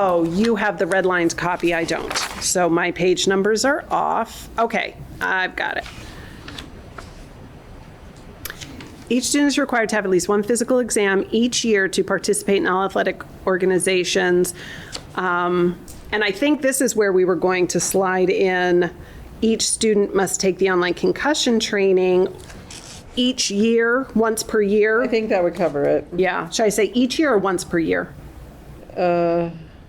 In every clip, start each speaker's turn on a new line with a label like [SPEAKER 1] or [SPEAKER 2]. [SPEAKER 1] Oh, you have the red lines copy, I don't. So my page numbers are off. Okay, I've got it. Each student is required to have at least one physical exam each year to participate in all athletic organizations. Um, And I think this is where we were going to slide in, each student must take the online concussion training each year, once per year.
[SPEAKER 2] I think that would cover it.
[SPEAKER 1] Yeah, should I say each year or once per year?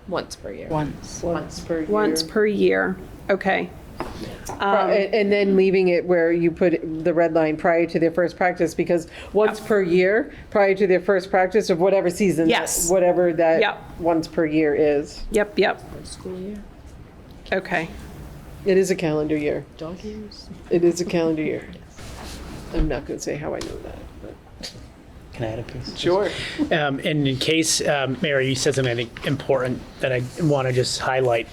[SPEAKER 3] Once per year.
[SPEAKER 2] Once. Once per year.
[SPEAKER 1] Once per year, okay.
[SPEAKER 2] And and then leaving it where you put the red line prior to their first practice, because once per year, prior to their first practice of whatever season. that-
[SPEAKER 1] Yes.
[SPEAKER 2] Whatever
[SPEAKER 1] Yep.
[SPEAKER 2] that once per year is.
[SPEAKER 1] Yep, yep,
[SPEAKER 3] School year,
[SPEAKER 1] okay.
[SPEAKER 2] It is a calendar year.
[SPEAKER 3] dog years.
[SPEAKER 2] It is a calendar year. I'm not going to say how I know that. but-
[SPEAKER 4] Can I add a piece? Um, and in case, um, Mary, you said something I think, important that I want to just highlight.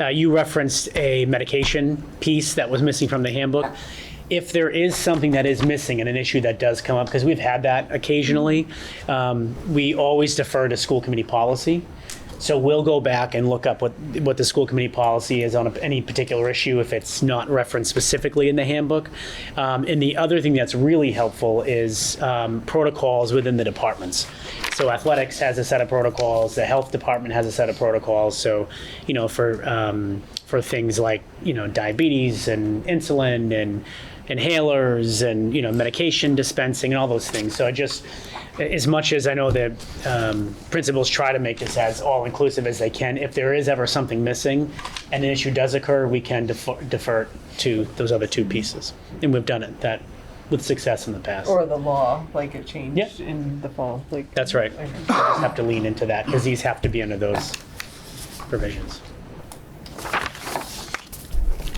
[SPEAKER 4] Uh, you referenced a medication piece that was missing from the handbook. If there is something that is missing and an issue that does come up, because we've had that occasionally, um, we always defer to school committee policy. So we'll go back and look up what, what the school committee policy is on a- any particular issue if it's not referenced specifically in the handbook. Um, And the other thing that's really helpful is um, protocols within the departments. So athletics has a set of protocols, the health department has a set of protocols. So, you know, for, um, for things like, you know, diabetes and insulin and inhalers and, you know, medication dispensing and all those things. So I just, as much as I know that um, principals try to make this as all-inclusive as they can, if there is ever something missing and an issue does occur, we can defer- defer to those other two pieces. And we've done it that, with success in the past.
[SPEAKER 5] Or the law, like it changed
[SPEAKER 4] Yeah.
[SPEAKER 5] in the fall, like.
[SPEAKER 4] That's right. We just have to lean into that because these have to be under those provisions.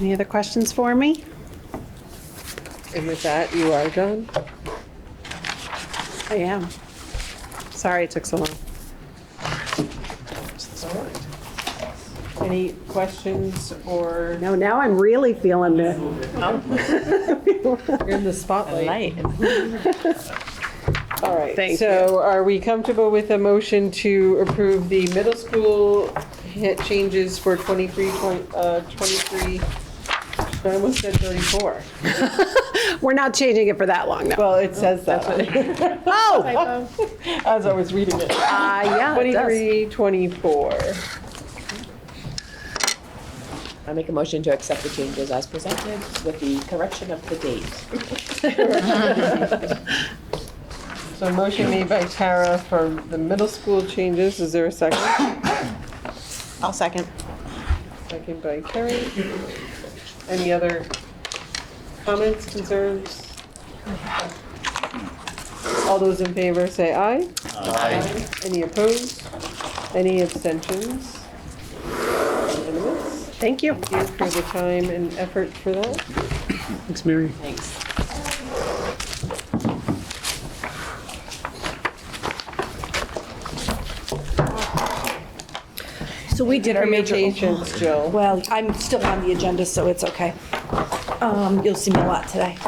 [SPEAKER 1] Any other questions for me?
[SPEAKER 2] And with that, you are done?
[SPEAKER 1] I am. Sorry it took so long.
[SPEAKER 2] Any questions or?
[SPEAKER 1] No, now I'm really feeling it.
[SPEAKER 2] You're in the spotlight. All right,
[SPEAKER 1] Thank
[SPEAKER 2] so are we comfortable with a motion to approve the middle school hit changes for 23, twen- uh, 23, I almost said 34.
[SPEAKER 1] We're not changing it for that long, no.
[SPEAKER 2] Well, it says that. on it.
[SPEAKER 1] Oh,
[SPEAKER 2] As I was reading it.
[SPEAKER 1] uh, yeah, it does.
[SPEAKER 2] 23, 24.
[SPEAKER 3] I make a motion to accept the changes as presented with the correction of the date.
[SPEAKER 2] So motion made by Tara for the middle school changes. Is there a second?
[SPEAKER 3] I'll second.
[SPEAKER 2] Second by Carrie. Any other comments, concerns? All those in favor say aye. Aye. Any opposed? Any abstentions? Unanimous.
[SPEAKER 1] Thank you.
[SPEAKER 2] Thank you for the time and effort for that.
[SPEAKER 4] Thanks, Mary.
[SPEAKER 3] Thanks.
[SPEAKER 6] So we did our
[SPEAKER 2] For your
[SPEAKER 6] major,
[SPEAKER 2] patience, Jill.
[SPEAKER 6] well, I'm still on the agenda, so it's okay. Um, You'll see me a lot today.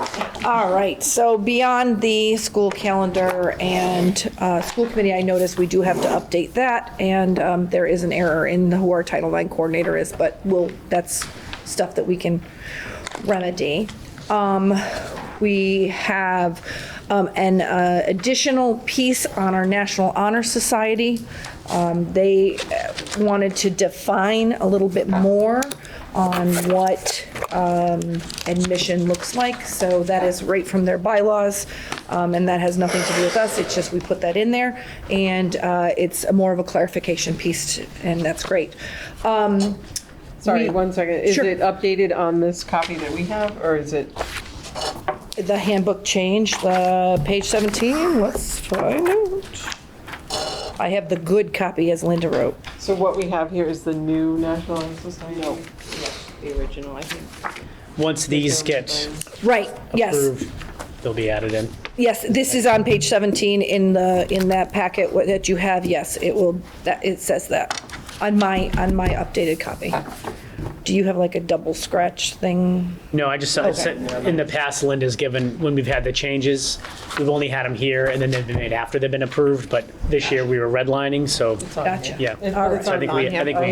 [SPEAKER 6] All right, so beyond the school calendar and uh, school committee, I noticed we do have to update that, and um, there is an error in who our Title IX coordinator is, but we'll, that's stuff that we can remedy. Um, We have um, an uh, additional piece on our National Honor Society. Um, They uh, wanted to define a little bit more on what um, admission looks like, so that is right from their bylaws, um, and that has nothing to do with us, it's just we put that in there, and uh, it's a more of a clarification piece, and that's great. Um,
[SPEAKER 2] Sorry,
[SPEAKER 6] we-
[SPEAKER 2] one second. Is
[SPEAKER 6] Sure.
[SPEAKER 2] it updated on this copy that we have, or is it?
[SPEAKER 6] The handbook change, uh, page 17, let's find out. I have the good copy as Linda wrote.
[SPEAKER 2] So what we have here is the new National Honor Society? No.
[SPEAKER 3] The original, I think.
[SPEAKER 4] Once these get
[SPEAKER 6] Right, yes,
[SPEAKER 4] approved, they'll be added in.
[SPEAKER 6] yes, this is on page 17 in the, in that packet what- that you have, yes, it will, that, it says that on my, on my updated copy. do you have like a double scratch thing?
[SPEAKER 4] No, I just, saw- it's-
[SPEAKER 6] Okay.
[SPEAKER 4] in the past, Linda's given, when we've had the changes, we've only had them here, and then they've been made after they've been approved, but this year we were redlining, so,
[SPEAKER 6] Gotcha.
[SPEAKER 4] yeah.
[SPEAKER 6] All
[SPEAKER 4] So I
[SPEAKER 6] right.
[SPEAKER 4] think we, I think we